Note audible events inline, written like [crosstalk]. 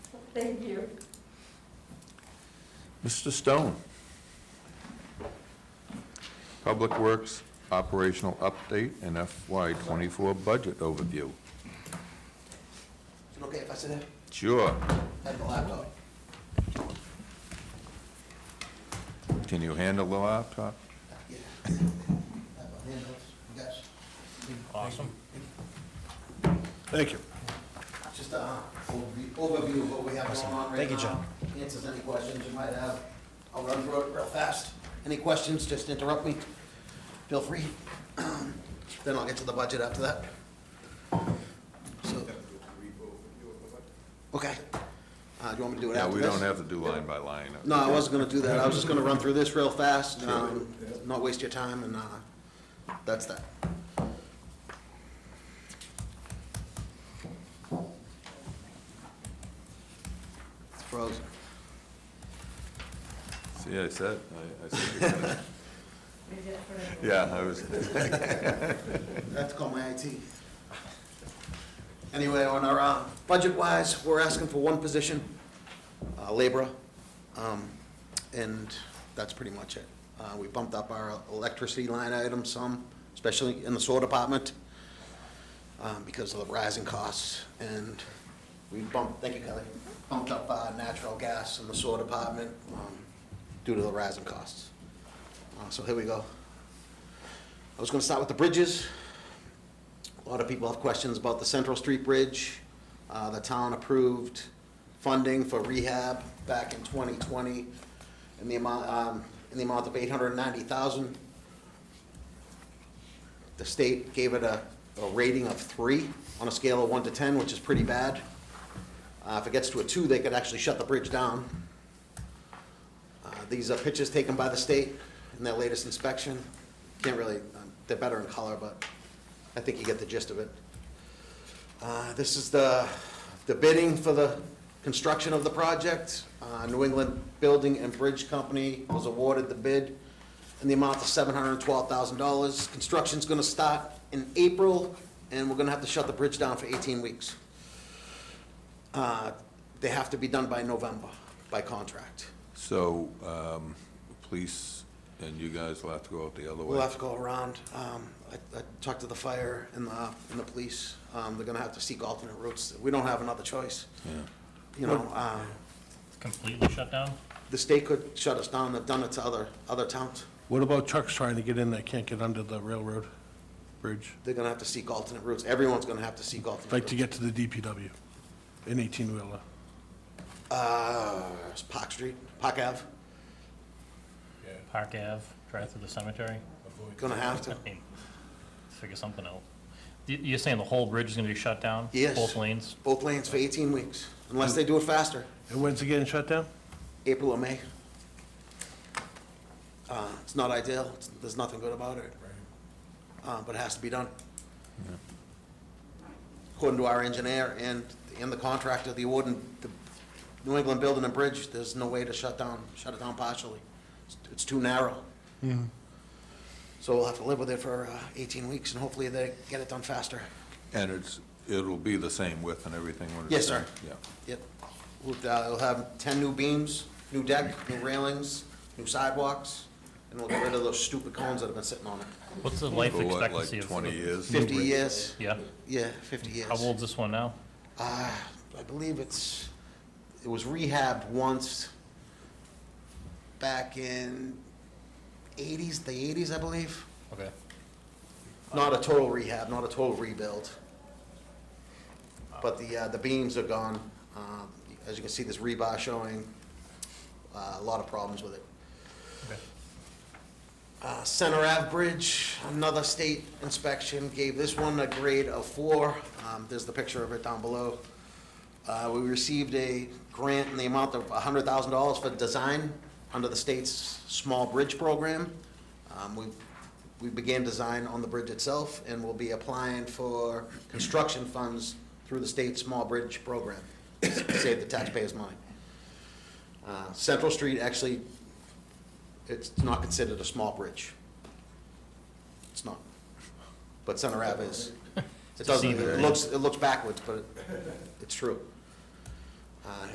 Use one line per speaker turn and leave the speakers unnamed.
Thank you.
Mr. Stone. Public Works Operational Update and FY '24 Budget Overview.
Is it okay if I sit there?
Sure.
I have the laptop.
Can you handle the laptop?
Yeah. I have my handouts. You guys.
Awesome.
Thank you.
Just a overview overview of what we have going on right now.
Thank you, John.
Answers any questions you might have. I'll run through it real fast. Any questions, just interrupt me. Feel free. [clears throat] Then I'll get to the budget after that. So. Okay. Uh, do you want me to do it
Yeah,
after
we
this?
don't have to do line by line.
No, I wasn't gonna do that. I was just gonna run through this real fast, um, not waste your time, and, uh, that's that. It's frozen.
See, I said, I- I
[laughs]
said. you're gonna- Yeah, I was,
I have to call my IT. Anyway, on our, uh, budget-wise, we're asking for one position, uh, laborer, um, and that's pretty much it. Uh, we bumped up our electricity line item some, especially in the sewer department, um, because of the rising costs, and we bumped, thank you, Kelly, bumped up, uh, natural gas in the sewer department, um, due to the rising costs. Uh, so here we go. I was gonna start with the bridges. A lot of people have questions about the Central Street Bridge. Uh, The town approved funding for rehab back in 2020 in the amount, um, in the amount of 890,000. The state gave it a, a rating of three on a scale of one to 10, which is pretty bad. Uh, If it gets to a two, they could actually shut the bridge down. Uh, These are pictures taken by the state in their latest inspection. Can't really, um, they're better in color, but I think you get the gist of it. Uh, This is the, the bidding for the construction of the project. Uh, New England Building and Bridge Company was awarded the bid in the amount of $712,000. Construction's going to start in April, and we're going to have to shut the bridge down for 18 weeks. Uh, They have to be done by November, by contract.
so, um, police and you guys will have to go out the other
We'll
way.
have to go around. Um, I, I talked to the fire and the, and the police. Um, they're gonna have to seek alternate routes. We don't have another choice.
Yeah.
You know, um,
Completely shut down?
the state could shut us down. They've done it to other, other towns.
What about trucks trying to get in that can't get under the railroad bridge?
They're gonna have to seek alternate routes. Everyone's gonna have to seek alternate
Like
routes.
to get to the DPW, an 18-wheeler?
Uh, it's Park Street, Park Ave,
Park Ave, drive through the cemetery?
gonna have
I
to.
mean, Figure something out. You- You're saying the whole bridge is gonna be shut down?
Yes.
Both lanes?
Both lanes for eighteen weeks, unless they do it faster,
And when's it getting shut down?
April or May. Uh, it's not ideal. It's- There's nothing good about it. Uh, but it has to be done. according to our engineer and, and the contractor, the award and the New England Building and Bridge, there's no way to shut down, shut it down partially. It's- It's too narrow. So we'll have to live with it for uh, eighteen weeks, and hopefully they get it done faster.
And it's, it'll be the same width and everything when it's
Yes, sir.
done? Yeah.
Yep. We'll, uh, we'll have ten new beams, new deck, new railings, new sidewalks, and we'll get rid of those stupid cones that have been sitting on it.
What's the life
For what, like
expectancy of?
20 years?
Fifty years,
Yeah,
yeah, fifty years.
how old's this one now?
Uh, I believe it's, it was rehabbed once back in eighties, the eighties, I believe.
Okay.
Not a total rehab, not a total rebuild. But the, uh, the beams are gone. Um, as you can see, this rebar showing, uh, a lot of problems with it.
Okay.
Uh, Center Ave Bridge, another state inspection gave this one a grade of four. Um, there's the picture of it down below. Uh, we received a grant in the amount of hundred thousand dollars for design under the state's small bridge program. Um, we, we began design on the bridge itself and will be applying for construction funds through the state's small bridge program. Save the taxpayers money. Uh, Central Street actually it's not considered a small bridge. It's not. But Center Ave is. It doesn't, it looks, it looks backwards, but it- it's true. Uh,